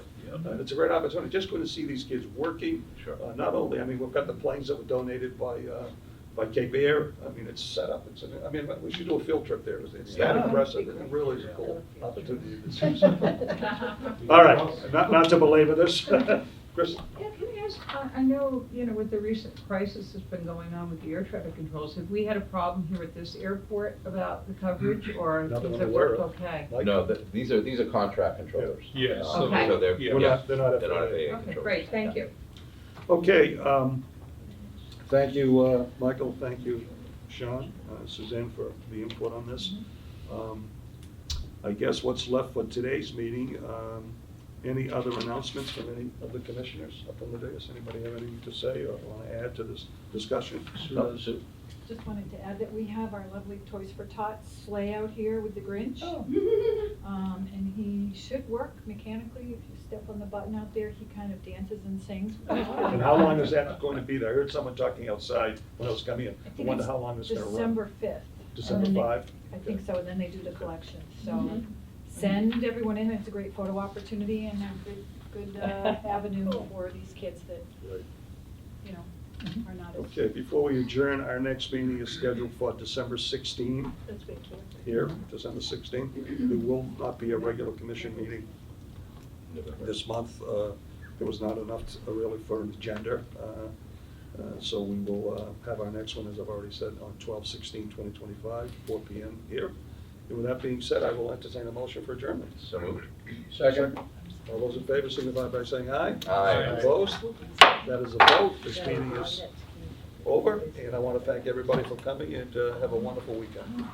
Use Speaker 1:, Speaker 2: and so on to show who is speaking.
Speaker 1: Uh, It's a great opportunity, just going to see these kids working.
Speaker 2: Sure.
Speaker 1: Uh, Not only, I mean, we've got the planes that were donated by, uh, by Cape Air. I mean, it's set up, it's, I mean, we should do a field trip there. It's- It's that
Speaker 2: Yeah.
Speaker 1: impressive, and it really is a cool opportunity to see.
Speaker 3: Yeah,
Speaker 1: All right, not, not to belabor this. Chris?
Speaker 3: can I ask, I, I know, you know, with the recent crisis that's been going on with the air traffic controls, have we had a problem here at this airport about the coverage, or
Speaker 1: Hmm. Not that
Speaker 3: is
Speaker 1: I'm
Speaker 3: it
Speaker 1: aware
Speaker 3: worked
Speaker 1: of.
Speaker 3: okay?
Speaker 1: Mike?
Speaker 2: No, th- these are, these are contract controllers.
Speaker 4: Yeah,
Speaker 2: Um,
Speaker 3: Okay.
Speaker 2: So they're,
Speaker 4: Yeah.
Speaker 1: We're
Speaker 2: yeah,
Speaker 1: not-
Speaker 2: they're
Speaker 1: they're not
Speaker 2: not
Speaker 1: FAA.
Speaker 2: FAA
Speaker 3: Okay,
Speaker 2: controllers.
Speaker 3: great, thank you.
Speaker 1: Okay, um, thank you, uh, Michael, thank you, Sean, uh, Suzanne for the input on this. Um, I guess what's left for today's meeting, um, any other announcements from any of the commissioners up on the dais? Anybody have anything to say or want to add to this discussion? No?
Speaker 2: So- so-
Speaker 5: Just wanted to add that we have our lovely Toys for Tots sleigh out here with the Grinch.
Speaker 3: Oh.
Speaker 1: Mm-hmm.
Speaker 5: Um, and he should work mechanically. If you step on the button out there, he kind of dances and sings.
Speaker 1: And how long is that going to be there? I heard someone talking outside when I was coming in. I
Speaker 5: I think
Speaker 1: wonder
Speaker 5: it's
Speaker 1: how long it's going to run.
Speaker 5: December fifth.
Speaker 1: December
Speaker 5: And then they-
Speaker 1: 5?
Speaker 5: I think so, and then they do
Speaker 1: Okay.
Speaker 5: the
Speaker 1: Mm-hmm.
Speaker 5: collection, so
Speaker 3: Mhm.
Speaker 5: send everyone in, it's a great photo opportunity and a good, good, uh, avenue for these kids that,
Speaker 1: Right.
Speaker 5: you know,
Speaker 1: Mm-hmm.
Speaker 5: are not as.
Speaker 1: Okay, before we adjourn, our next meeting is scheduled for December 16.
Speaker 5: That's big kids.
Speaker 1: here, December 16th. There will not be a regular commission meeting this month. Uh, There was not enough uh, really for an agenda. Uh, uh, So we will uh, have our next one, as I've already said, on 12/16/2025, 4 PM here. And with that being said, I will entertain a motion for adjournment.
Speaker 2: So moved.
Speaker 1: Second. All those in favor signify by saying aye.
Speaker 2: Aye.
Speaker 1: Opposed? That is a vote. This meeting is over, and I want to thank everybody for coming and uh, have a wonderful weekend.